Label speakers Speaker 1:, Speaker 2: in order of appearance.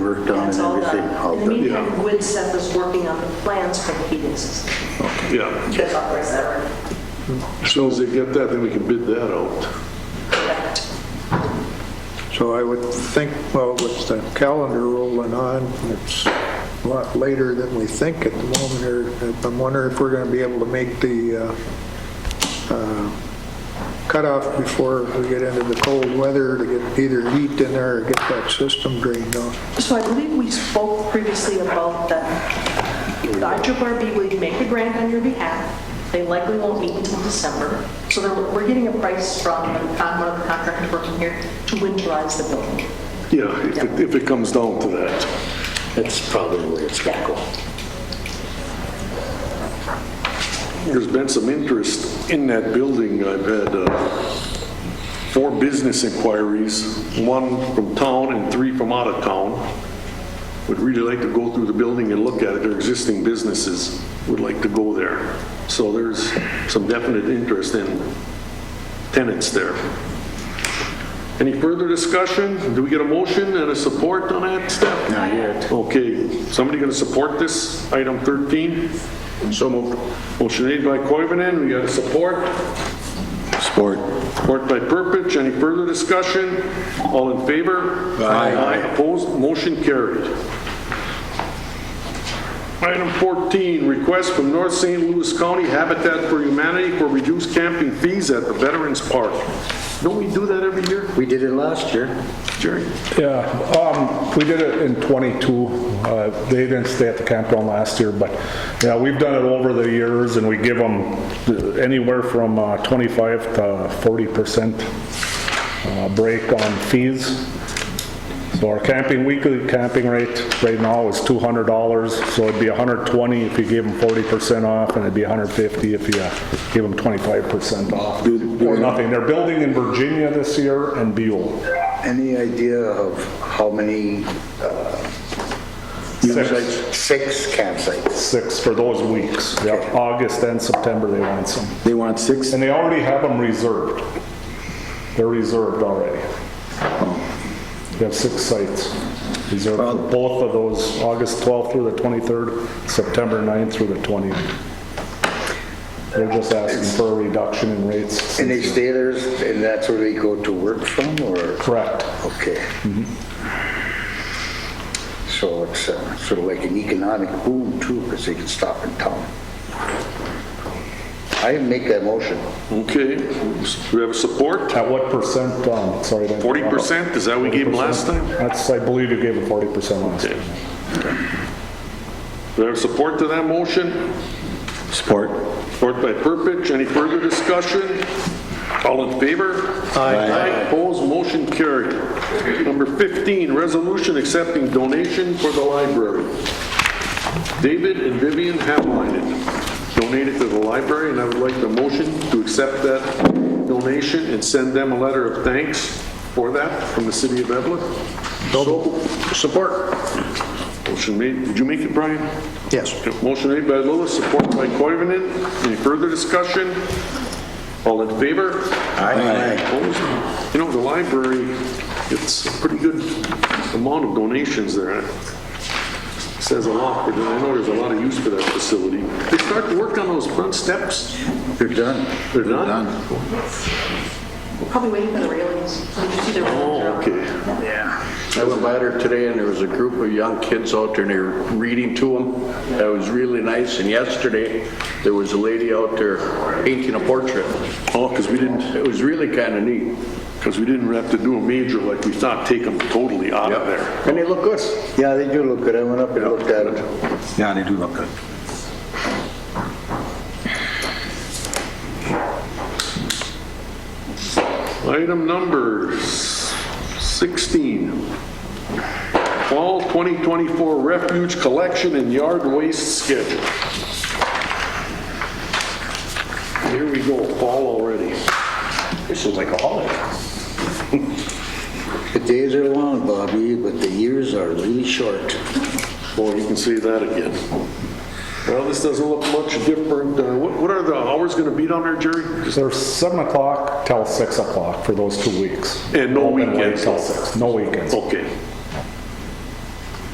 Speaker 1: work done and
Speaker 2: That's all
Speaker 1: everything.
Speaker 2: done.
Speaker 1: all
Speaker 2: In the
Speaker 1: done.
Speaker 2: meantime, Wood Seth is working on the plans for the heating system.
Speaker 3: Yeah,
Speaker 2: That's all there is ever.
Speaker 3: as soon as they get that, then we can bid that out.
Speaker 2: Correct.
Speaker 4: So I would think, well, with the calendar rolling on, it's a lot later than we think at the moment, or I'm wondering if we're going to be able to make the uh, uh, cutoff before we get into the cold weather to get either heat in there or get that system drained off.
Speaker 2: So I believe we spoke previously about that IRB would make a grant on your behalf. They likely won't meet until December. So they're- we're getting a price from the con- one of the contractors working here to winterize the building.
Speaker 3: Yeah, if it, if it comes down to that.
Speaker 1: That's probably where it's going to go.
Speaker 3: There's been some interest in that building. I've had uh, four business inquiries, one from town and three from out of town. Would really like to go through the building and look at it. Their existing businesses would like to go there. So there's some definite interest in tenants there. Any further discussion? Do we get a motion and a support on that, Steph?
Speaker 1: Not yet.
Speaker 3: Okay, somebody going to support this, item 13? So moved. Motion made by Koivunen, we got a support.
Speaker 1: Sport.
Speaker 3: Support by Purpich, any further discussion? All in favor?
Speaker 1: Aye.
Speaker 3: opposed, motion carried. Item 14, request from North St. Louis County Habitat for Humanity for reduced camping fees at the Veterans Park. Don't we do that every year,
Speaker 1: We did it last year.
Speaker 3: Jerry?
Speaker 5: Yeah, um, we did it in '22. Uh, They didn't stay at the campground last year, but, yeah, we've done it over the years, and we give them anywhere from uh, 25 to 40 percent uh, break on fees. So our camping, weekly camping rate right now is $200, so it'd be 120 if you gave them 40 percent off, and it'd be 150 if you uh, gave them 25 percent off, or nothing. They're building in Virginia this year and Buell.
Speaker 6: Any idea of how many? uh, campsites? Six campsites.
Speaker 5: six for those weeks. Yeah, August and September they want some.
Speaker 1: They want six,
Speaker 5: And they already have them reserved. They're reserved already.
Speaker 1: Oh.
Speaker 5: They have six sites reserved for both of those, August 12th through the 23rd, September 9th through the 20th. They're just asking for a reduction in rates.
Speaker 6: And they stay there, and that's where they go to work from, or?
Speaker 5: Correct.
Speaker 6: Okay. So it's uh, sort of like an economic boom too, because they can stop in town. I make that motion.
Speaker 3: Okay, do we have a support?
Speaker 5: At what percent, um, sorry. I didn't-
Speaker 3: 40%, is that what we gave them last time?
Speaker 5: That's, I believe you gave them 40% last time.
Speaker 3: Okay. Do we have support to that motion?
Speaker 1: sport.
Speaker 3: Support by Purpich. Any further discussion? All in favor? Aye. Opposed, motion carried. Number 15, resolution accepting donation for the library. David and Vivian Havlinek donated to the library, and I would like the motion to accept that donation and send them a letter of thanks for that from the city of Evlith. Support. Motion made, did you make it, Brian?
Speaker 4: Yes.
Speaker 3: Motion made by Lewis, support by Koivunen. Any further discussion? All in favor? Aye. Opposed? You know, the library, it's a pretty good amount of donations there. Says a lot, but I know there's a lot of use for that facility. They start to work on those front steps?
Speaker 6: They're done.
Speaker 3: They're done?
Speaker 2: Probably waiting for the railings. Did you see the railings?
Speaker 3: Oh, okay.
Speaker 7: I went by there today and there was a group of young kids out there and they were reading to them. That was really nice. And yesterday, there was a lady out there painting a portrait.
Speaker 3: Oh, because we didn't,
Speaker 7: It was really kind of neat.
Speaker 3: because we didn't have to do a major like we thought, take them totally out of there.
Speaker 7: And they look good.
Speaker 6: Yeah, they do look good. I went up and looked at it.
Speaker 1: Yeah, they do look good.
Speaker 3: Item number 16, Fall 2024 Refuge Collection and Yard Waste Schedule. Here we go, fall already. This is like a holiday.
Speaker 6: The days are long, Bobby, but the years are really short.
Speaker 3: Boy, you can see that again. Well, this doesn't look much different. Uh, What what are the hours going to be down there, Jerry? Just-
Speaker 5: They're 7 o'clock till 6 o'clock for those two weeks.
Speaker 3: And no
Speaker 5: Open late
Speaker 3: weekends.
Speaker 5: Till 6, no weekends.
Speaker 3: Okay.